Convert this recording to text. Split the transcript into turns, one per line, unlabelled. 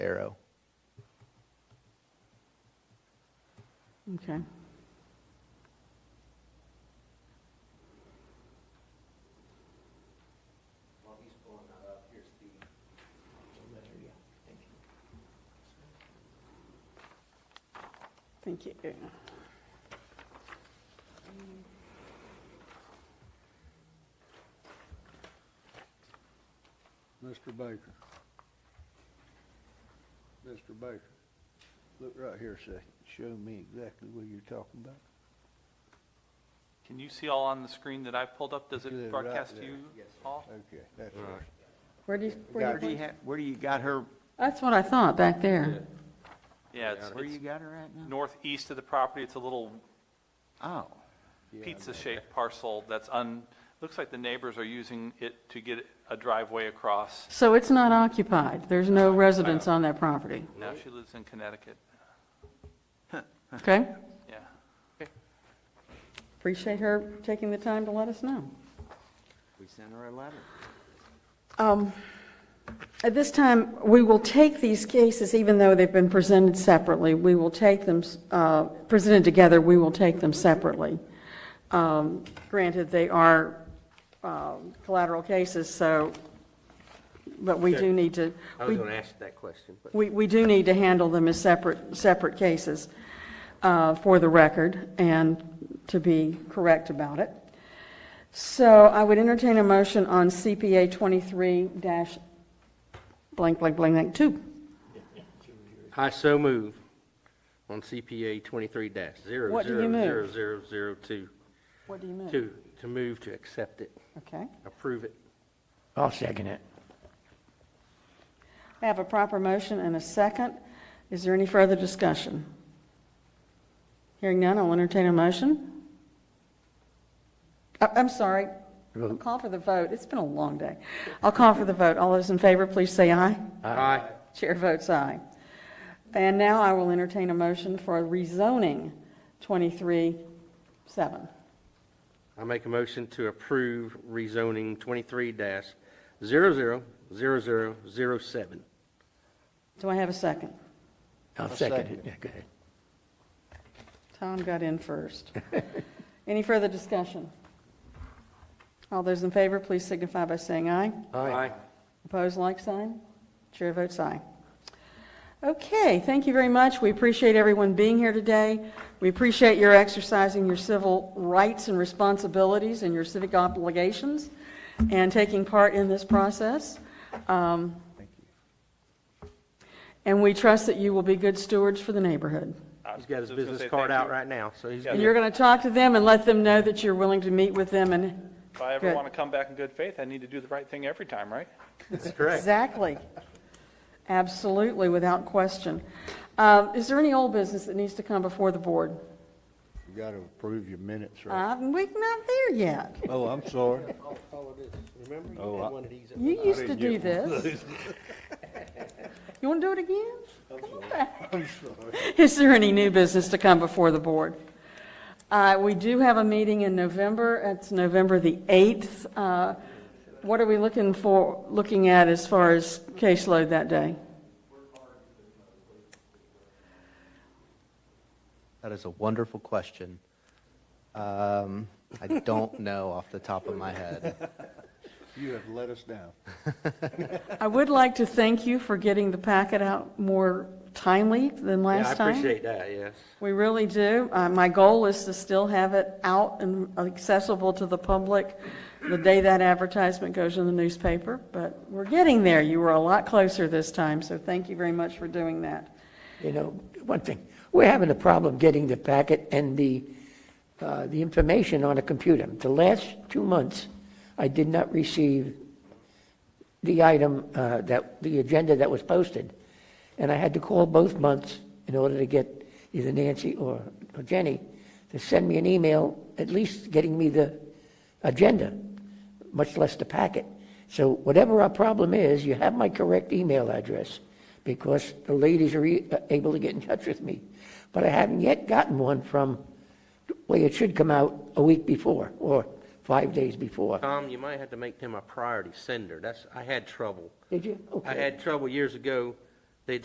arrow.
Okay. Thank you.
Mr. Baker. Mr. Baker, look right here a second. Show me exactly what you're talking about.
Can you see all on the screen that I've pulled up? Does
Yeah, right
it broadcast to
there.
you all?
Okay, that's right.
Where do you, where
Got
do
Where do you
you,
ha where do you got her,
that's what I thought, back there.
Yeah, it's
where you
it's
got her at now?
northeast of the property. It's a little
Oh,
Yeah, I
pizza-shaped parcel that's un, looks like the neighbors are using it to get a driveway across.
So it's not occupied, there's no residents on that property,
Now she lives in Connecticut.
okay?
Yeah.
Appreciate her taking the time to let us know.
we sent her a letter.
Um, At this time, we will take these cases, even though they've been presented separately, we will take them, uh, presented together, we will take them separately. Um, Granted, they are um, collateral cases, so, but we do need to,
I was
we
going to ask that question, but
we, we do need to handle them as separate, separate cases uh, for the record and to be correct about it. So I would entertain a motion on CPA 23 dash blank, blank, blank, blank, two.
I so move on CPA 23 dash 00002.
What do you move? What do you move?
To, to move to accept it,
Okay.
approve it.
I'll second it.
I have a proper motion and a second. Is there any further discussion? Hearing none, I'll entertain a motion. I- I'm sorry. I'll call for the vote. It's been a long day. I'll call for the vote. All those in favor, please say aye.
Aye.
Chair votes aye. And now I will entertain a motion for rezoning 23-7.
I make a motion to approve rezoning 23 dash 000007.
Do I have a second?
I'll second it, yeah, go ahead.
Tom got in first. Any further discussion? All those in favor, please signify by saying aye.
Aye.
Opposed, like sign. Chair votes aye. Okay, thank you very much. We appreciate everyone being here today. We appreciate your exercising your civil rights and responsibilities and your civic obligations and taking part in this process. Um, And we trust that you will be good stewards for the neighborhood.
He's got his
I was gonna
business
say
card
thank
out
you.
right now, so he's,
Yeah.
good.
And you're going to talk to them and let them know that you're willing to meet with them and,
If I ever
Good.
want to come back in good faith, I need to do the right thing every time, right?
that's correct.
exactly. Absolutely, without question. Uh, Is there any old business that needs to come before the board?
You gotta approve your minutes, right?
Uh, We're not there yet.
Oh, I'm sorry.
Remember,
Oh,
you
I-
had one of these.
You used to do this. You want to do it again? Come on back. Is there any new business to come before the board? Uh, We do have a meeting in November. It's November the 8th. Uh, What are we looking for, looking at as far as caseload that day?
That is a wonderful question. Um, I don't know off the top of my head.
You have let us down.
I would like to thank you for getting the packet out more timely than
Yeah,
last time.
I appreciate that, yes.
We really do. Uh, My goal is to still have it out and accessible to the public the day that advertisement goes in the newspaper, but we're getting there. You were a lot closer this time, so thank you very much for doing that.
You know, one thing, we're having a problem getting the packet and the, uh, the information on a computer. The last two months, I did not receive the item, uh, that, the agenda that was posted. And I had to call both months in order to get either Nancy or or Jenny to send me an email, at least getting me the agenda, much less the packet. So whatever our problem is, you have my correct email address, because the ladies are e- able to get in touch with me. But I haven't yet gotten one from, the way it should come out a week before, or five days before.
Tom, you might have to make him a priority sender. That's, I had trouble.
Did you?
I
Okay.
had trouble years ago